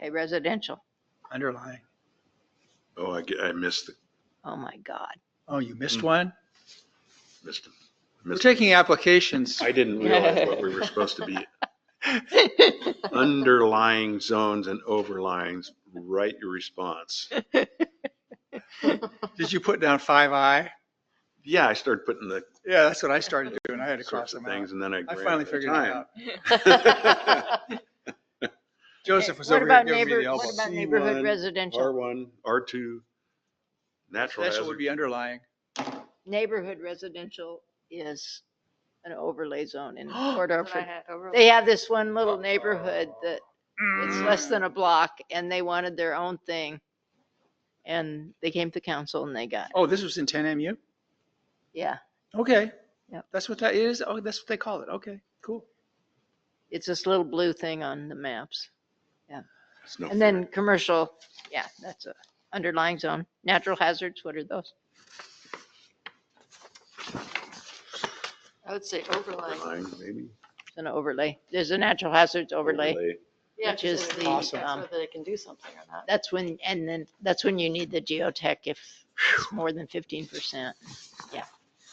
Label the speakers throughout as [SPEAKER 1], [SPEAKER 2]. [SPEAKER 1] Okay, residential.
[SPEAKER 2] underlying.
[SPEAKER 3] Oh, I, ge- I missed, the-
[SPEAKER 1] Oh my God.
[SPEAKER 2] Oh, you missed
[SPEAKER 3] Mm.
[SPEAKER 2] one?
[SPEAKER 3] missed, him.
[SPEAKER 2] We're
[SPEAKER 3] missed.
[SPEAKER 2] taking applications.
[SPEAKER 3] I didn't realize what we were supposed to be. Underlying zones and overlines, write your response.
[SPEAKER 2] Did you put down five I?
[SPEAKER 3] Yeah, I started putting the
[SPEAKER 2] Yeah, that's what I started doing. I had to cross
[SPEAKER 3] sorts of
[SPEAKER 2] them out.
[SPEAKER 3] things and then I.
[SPEAKER 2] I
[SPEAKER 3] ran
[SPEAKER 2] finally
[SPEAKER 3] of
[SPEAKER 2] figured it
[SPEAKER 3] time.
[SPEAKER 2] out. Joseph was
[SPEAKER 1] What
[SPEAKER 2] over here
[SPEAKER 1] about
[SPEAKER 2] giving me
[SPEAKER 1] neighbor?
[SPEAKER 2] the
[SPEAKER 1] What
[SPEAKER 2] elbow.
[SPEAKER 1] about neighborhood
[SPEAKER 3] C1,
[SPEAKER 1] residential?
[SPEAKER 3] R1, R2, natural
[SPEAKER 2] That's what would
[SPEAKER 3] hazard.
[SPEAKER 2] be underlying.
[SPEAKER 1] Neighborhood residential is an overlay zone in Port
[SPEAKER 4] That's what I
[SPEAKER 1] Orford.
[SPEAKER 4] had.
[SPEAKER 1] They have Mm. this one little neighborhood that it's less than a block and they wanted their own thing. And they came to council and they got,
[SPEAKER 2] Oh, this was in ten MU?
[SPEAKER 1] yeah,
[SPEAKER 2] Okay.
[SPEAKER 1] Yep.
[SPEAKER 2] That's what that is? Oh, that's what they call it. Okay, cool.
[SPEAKER 1] it's this little blue thing on the maps.
[SPEAKER 3] It's no
[SPEAKER 1] And
[SPEAKER 3] fair.
[SPEAKER 1] then commercial, yeah, that's a underlying zone. Natural hazards, what are those?
[SPEAKER 4] I would say overlay.
[SPEAKER 3] Overlying, maybe.
[SPEAKER 1] It's an overlay. There's a natural hazards overlay.
[SPEAKER 4] Yeah,
[SPEAKER 1] Which
[SPEAKER 4] 'cause
[SPEAKER 1] is the,
[SPEAKER 4] then
[SPEAKER 1] um,
[SPEAKER 4] they-
[SPEAKER 2] Awesome.
[SPEAKER 4] So that they can do something or not.
[SPEAKER 1] That's when, and then that's when you need the geotech if it's more than fifteen percent. Yeah.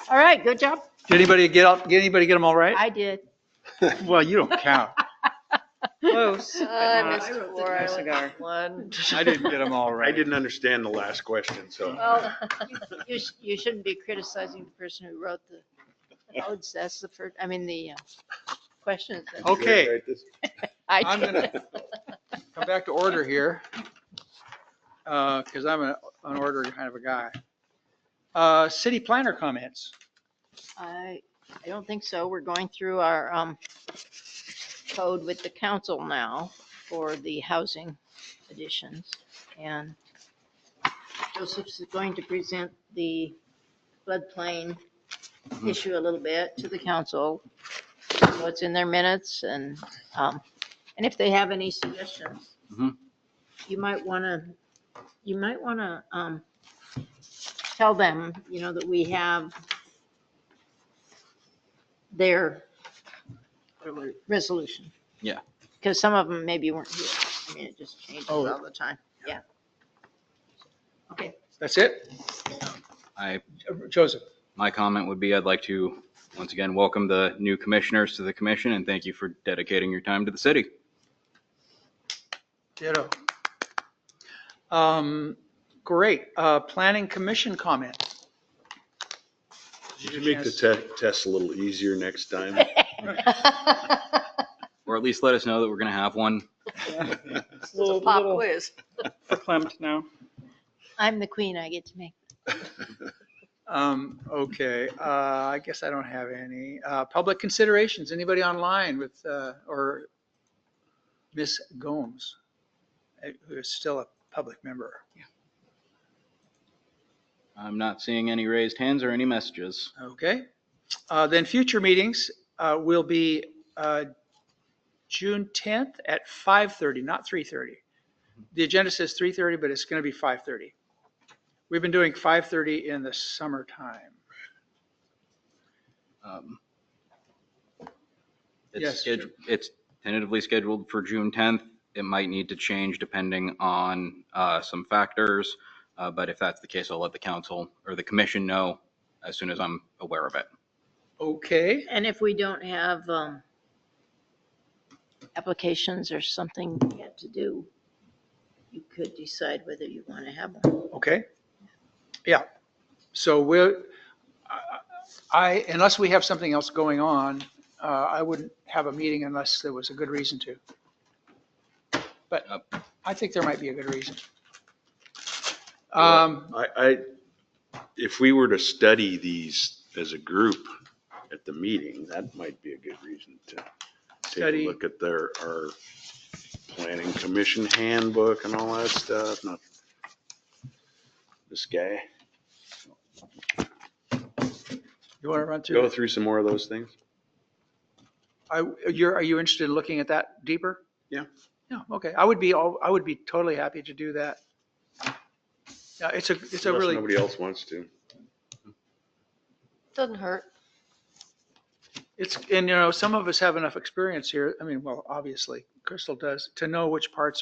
[SPEAKER 1] All right, good job.
[SPEAKER 2] Did anybody get up, did anybody get them all right?
[SPEAKER 1] I did.
[SPEAKER 2] Well, you don't count.
[SPEAKER 5] Close. but
[SPEAKER 4] I
[SPEAKER 5] not
[SPEAKER 4] missed
[SPEAKER 5] a
[SPEAKER 4] four, I
[SPEAKER 5] Cigar.
[SPEAKER 4] went Uh, one.
[SPEAKER 2] I didn't get them all right.
[SPEAKER 3] I didn't understand the last question, so.
[SPEAKER 1] Well, you, sh- you shouldn't be criticizing the person who wrote the codes. That's the first, I mean, the uh, questions. that
[SPEAKER 2] Oh. Okay.
[SPEAKER 3] Right, this-
[SPEAKER 1] I
[SPEAKER 2] I'm
[SPEAKER 1] did.
[SPEAKER 2] gonna come back to order here, because I'm a- an order kind of a guy. Uh, City planner comments.
[SPEAKER 1] I, I don't think so. We're going through our um, code with the council now for the housing additions. And Joseph's is going to present the floodplain issue a little bit to the council. see What's in their minutes and, um, and if they have any suggestions.
[SPEAKER 3] Mhm.
[SPEAKER 1] You might want to, you might want to, um, tell them, you know, that we have their resolution.
[SPEAKER 2] Yeah.
[SPEAKER 1] Because some of them maybe weren't here. I mean, it just changes
[SPEAKER 2] Oh.
[SPEAKER 1] all the time. Yeah. Okay.
[SPEAKER 2] That's it?
[SPEAKER 6] I-
[SPEAKER 2] Joseph,
[SPEAKER 6] My comment would be I'd like to once again welcome the new commissioners to the commission and thank you for dedicating your time to the city.
[SPEAKER 2] ditto. Um, Great. Uh, Planning commission comment.
[SPEAKER 3] Did you make the te- test a little easier next time?
[SPEAKER 6] Or at least let us know that we're going to have one.
[SPEAKER 4] This is a pop quiz.
[SPEAKER 5] Verklempt now.
[SPEAKER 1] I'm the queen. I get to make.
[SPEAKER 2] Um, Okay, uh, I guess I don't have any. Uh, Public considerations, anybody online with, uh, or Miss Gomes, eh, who is still a public member.
[SPEAKER 6] I'm not seeing any raised hands or any messages.
[SPEAKER 2] Okay, Uh, then future meetings uh, will be uh, June 10th at 5:30, not 3:30. The agenda says 3:30, but it's going to be 5:30. We've been doing 5:30 in the summertime.
[SPEAKER 6] Um,
[SPEAKER 2] Yes.
[SPEAKER 6] It's sched- it's tentatively scheduled for June 10th. It might need to change depending on uh, some factors, uh, but if that's the case, I'll let the council or the commission know as soon as I'm aware of it.
[SPEAKER 2] Okay,
[SPEAKER 1] And if we don't have um, applications or something yet to do, you could decide whether you want to have one.
[SPEAKER 2] okay. Yeah, so we're, I, unless we have something else going on, uh, I wouldn't have a meeting unless there was a good reason to. But uh, I think there might be a good reason. Um,
[SPEAKER 3] I, I, if we were to study these as a group at the meeting, that might be a good reason to take
[SPEAKER 2] Study.
[SPEAKER 3] a look at their, our planning commission handbook and all that stuff, not this guy.
[SPEAKER 2] You want to run through?
[SPEAKER 3] Go
[SPEAKER 2] it?
[SPEAKER 3] through some more of those things.
[SPEAKER 2] I, you're, are you interested in looking at that deeper?
[SPEAKER 3] Yeah.
[SPEAKER 2] Yeah, okay. I would be, all I would be totally happy to do that. Yeah, it's a, it's a
[SPEAKER 3] Unless
[SPEAKER 2] really,
[SPEAKER 3] Nobody else wants to.
[SPEAKER 4] Doesn't hurt.
[SPEAKER 2] it's, and you know, some of us have enough experience here. I mean, well, obviously Crystal does, to know which parts